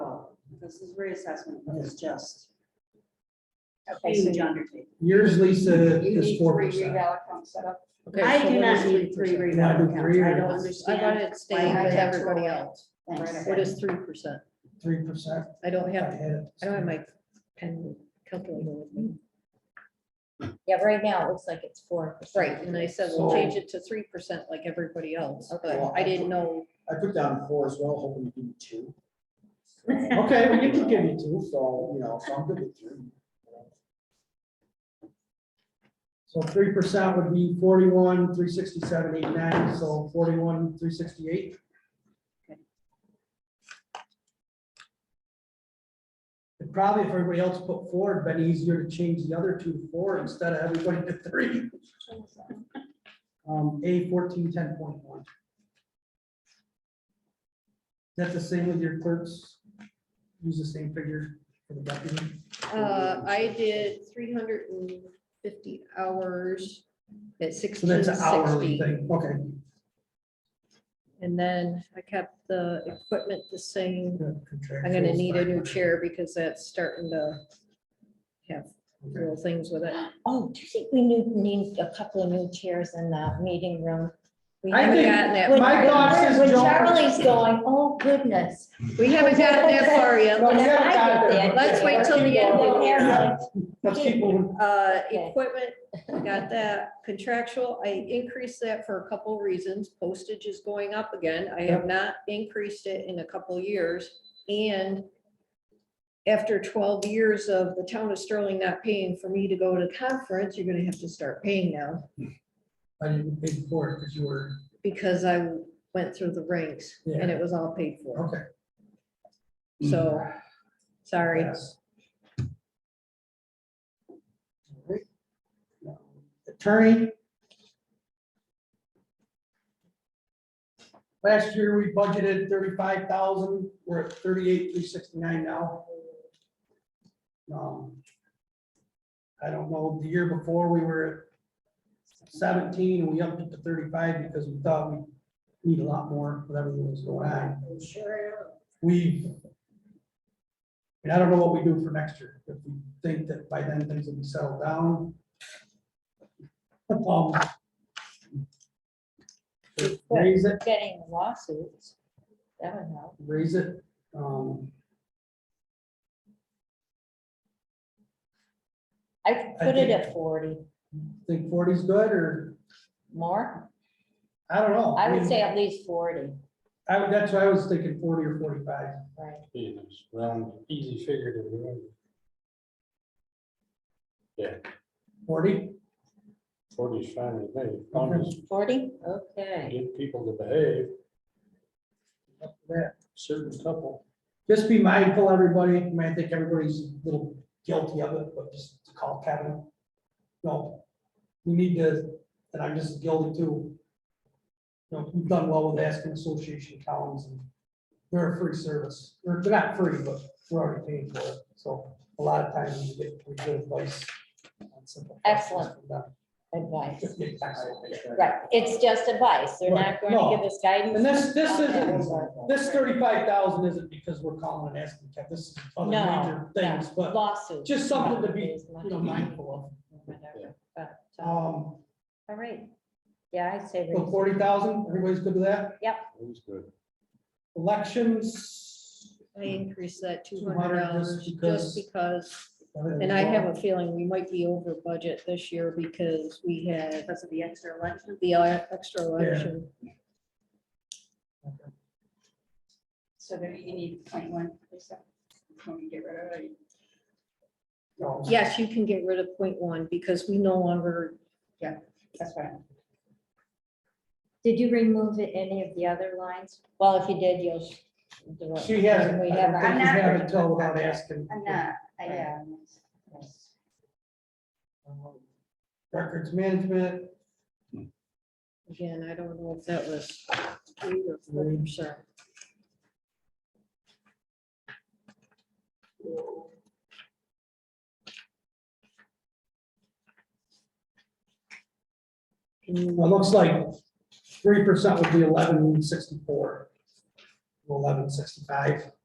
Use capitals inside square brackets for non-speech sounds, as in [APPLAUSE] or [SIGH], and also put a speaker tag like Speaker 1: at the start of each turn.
Speaker 1: Oh, this is reassessment, but it's just
Speaker 2: Okay, so
Speaker 1: huge
Speaker 2: you
Speaker 1: undertaking.
Speaker 3: Yours, Lisa,
Speaker 2: you
Speaker 3: is
Speaker 2: need
Speaker 3: four
Speaker 2: three
Speaker 3: percent.
Speaker 2: reval accounts set up.
Speaker 4: Okay,
Speaker 1: I
Speaker 4: so
Speaker 1: do
Speaker 4: what
Speaker 1: not
Speaker 4: is
Speaker 1: need three
Speaker 4: 3%?
Speaker 3: Not
Speaker 1: reval
Speaker 3: the
Speaker 1: accounts.
Speaker 3: three
Speaker 1: I don't
Speaker 3: reval.
Speaker 4: I got
Speaker 1: understand.
Speaker 4: it staying
Speaker 1: why
Speaker 4: with
Speaker 1: I have to
Speaker 4: everybody
Speaker 2: roll it.
Speaker 4: else.
Speaker 1: Thanks.
Speaker 4: What is three percent?
Speaker 3: Three percent.
Speaker 4: I don't have, I don't have my pen calculator with me.
Speaker 5: Yeah, right now, it looks like it's four.
Speaker 4: Right, and I said, we'll
Speaker 3: So-
Speaker 4: change it to three percent like everybody else, but
Speaker 6: Well,
Speaker 4: I didn't know.
Speaker 6: I put down four as well, hoping to give you
Speaker 2: [LAUGHS]
Speaker 6: two.
Speaker 3: Okay, we can give you two.
Speaker 6: two, so, you know, so I'm good with three.
Speaker 3: So three percent would be forty-one, three sixty-seven, eight ninety, so forty-one, three sixty-eight. It probably, if everybody else put four, it'd been easier to change the other two to four instead of everybody to three. Um, A fourteen, ten point one. That's the same with your clerks? Use the same figure for the deputy?
Speaker 4: Uh, I did three hundred and fifty hours at
Speaker 3: So
Speaker 4: sixteen
Speaker 3: that's an hourly
Speaker 4: sixty.
Speaker 3: thing, okay.
Speaker 4: And then I kept the equipment the same. I'm
Speaker 3: I'm
Speaker 4: gonna need a new chair because that's starting to have
Speaker 3: Okay.
Speaker 4: little things with it.
Speaker 5: Oh, do you think we need, need a couple of new chairs in the meeting room? We
Speaker 3: I
Speaker 4: I haven't
Speaker 3: think
Speaker 4: gotten that
Speaker 5: When-
Speaker 3: my
Speaker 4: far.
Speaker 3: thoughts is
Speaker 5: When
Speaker 3: Joan-
Speaker 5: Charlie's going, oh goodness.
Speaker 4: We haven't gotten that far
Speaker 3: No,
Speaker 4: yet.
Speaker 3: we haven't got there, but-
Speaker 4: Let's wait till the end of the
Speaker 5: year.
Speaker 3: Let's keep moving.
Speaker 4: Uh,
Speaker 3: [LAUGHS]
Speaker 5: Okay.
Speaker 4: equipment, got that contractual, I increased that for a couple reasons. Postage is going up again. I have not increased it in a couple years. And after twelve years of the town of Sterling not paying for me to go to conference, you're gonna have to start paying now.
Speaker 3: I didn't pay for it because you were,
Speaker 4: because I went through the ranks and it was all paid for.
Speaker 3: okay. Mm.
Speaker 4: So, sorry.
Speaker 3: Yes. Alright. Now, Attorney. Last year, we budgeted thirty-five thousand, we're at thirty-eight, three sixty-nine now. Um, I don't know, the year before, we were at seventeen, and we upped it to thirty-five because we thought we need a lot more with everything that's going on. We and I don't know what we do for next year, if we think that by then things will be settled down. Um, Raise it,
Speaker 5: Getting lawsuits. That would help.
Speaker 3: raise it, um,
Speaker 5: I could
Speaker 3: I
Speaker 5: put it
Speaker 3: think-
Speaker 5: at forty.
Speaker 3: think forty's good, or,
Speaker 5: More?
Speaker 3: I don't know.
Speaker 5: I would
Speaker 3: mean,
Speaker 5: say at least forty,
Speaker 3: I, would- that's why I was thinking forty or forty-five,
Speaker 5: right?
Speaker 7: Yeah, it's Round, easy figure to remember. Yeah,
Speaker 3: forty,
Speaker 7: forty is fine with me, as long as
Speaker 5: Forty?
Speaker 7: you
Speaker 5: Okay.
Speaker 7: get people to behave,
Speaker 3: up to that.
Speaker 7: certain couple.
Speaker 3: Just be mindful, everybody, I mean, I think everybody's a little guilty of it, but just call Kevin. No, we need to, and I'm just guilty too. You know, we've done well with asking Association Collins, and they're a free service, they're they're not free, but we're already paying for it, so a lot of times you get pretty good advice. on simple questions
Speaker 5: Excellent.
Speaker 3: from them.
Speaker 5: Advice.
Speaker 3: Just get excellent.
Speaker 5: Right, it's just advice. They're not
Speaker 3: Right,
Speaker 5: going to give us guidance.
Speaker 3: And this, this
Speaker 5: Okay.
Speaker 3: isn't, this thirty-five thousand isn't because we're calling and asking, Kevin, this is other
Speaker 5: No,
Speaker 3: major things, but.
Speaker 5: Lawsuits.
Speaker 3: just something to be,
Speaker 5: Is much
Speaker 3: you know, mindful
Speaker 5: whatever, but,
Speaker 3: of.
Speaker 5: uh,
Speaker 3: Um,
Speaker 5: All right. Yeah, I'd say.
Speaker 3: so forty thousand, everybody's good with that?
Speaker 7: That's good.
Speaker 3: Elections.
Speaker 4: I increased that two
Speaker 3: 200
Speaker 4: hundred dollars
Speaker 3: just
Speaker 4: just
Speaker 3: because-
Speaker 4: because, and I have a feeling we might be over budget this year because we had
Speaker 1: Because of the extra election.
Speaker 4: the uh, extra election.
Speaker 1: So there you need twenty-one percent. When you get rid of it.
Speaker 3: No.
Speaker 4: Yes, you can get rid of point one because we no longer,
Speaker 1: That's right.
Speaker 5: Did you remove it- any of the other lines? Well, if you did, you'll. sh- do it.
Speaker 3: She hasn't,
Speaker 5: We
Speaker 3: I
Speaker 5: have.
Speaker 1: I'm
Speaker 3: don't think
Speaker 1: not-
Speaker 3: you have until without asking.
Speaker 1: I'm not, I am.
Speaker 3: um, Records management,
Speaker 4: again, I don't know if that was three or four percent. Can you
Speaker 3: well, it looks like three percent would be eleven sixty-four. Eleven sixty-five,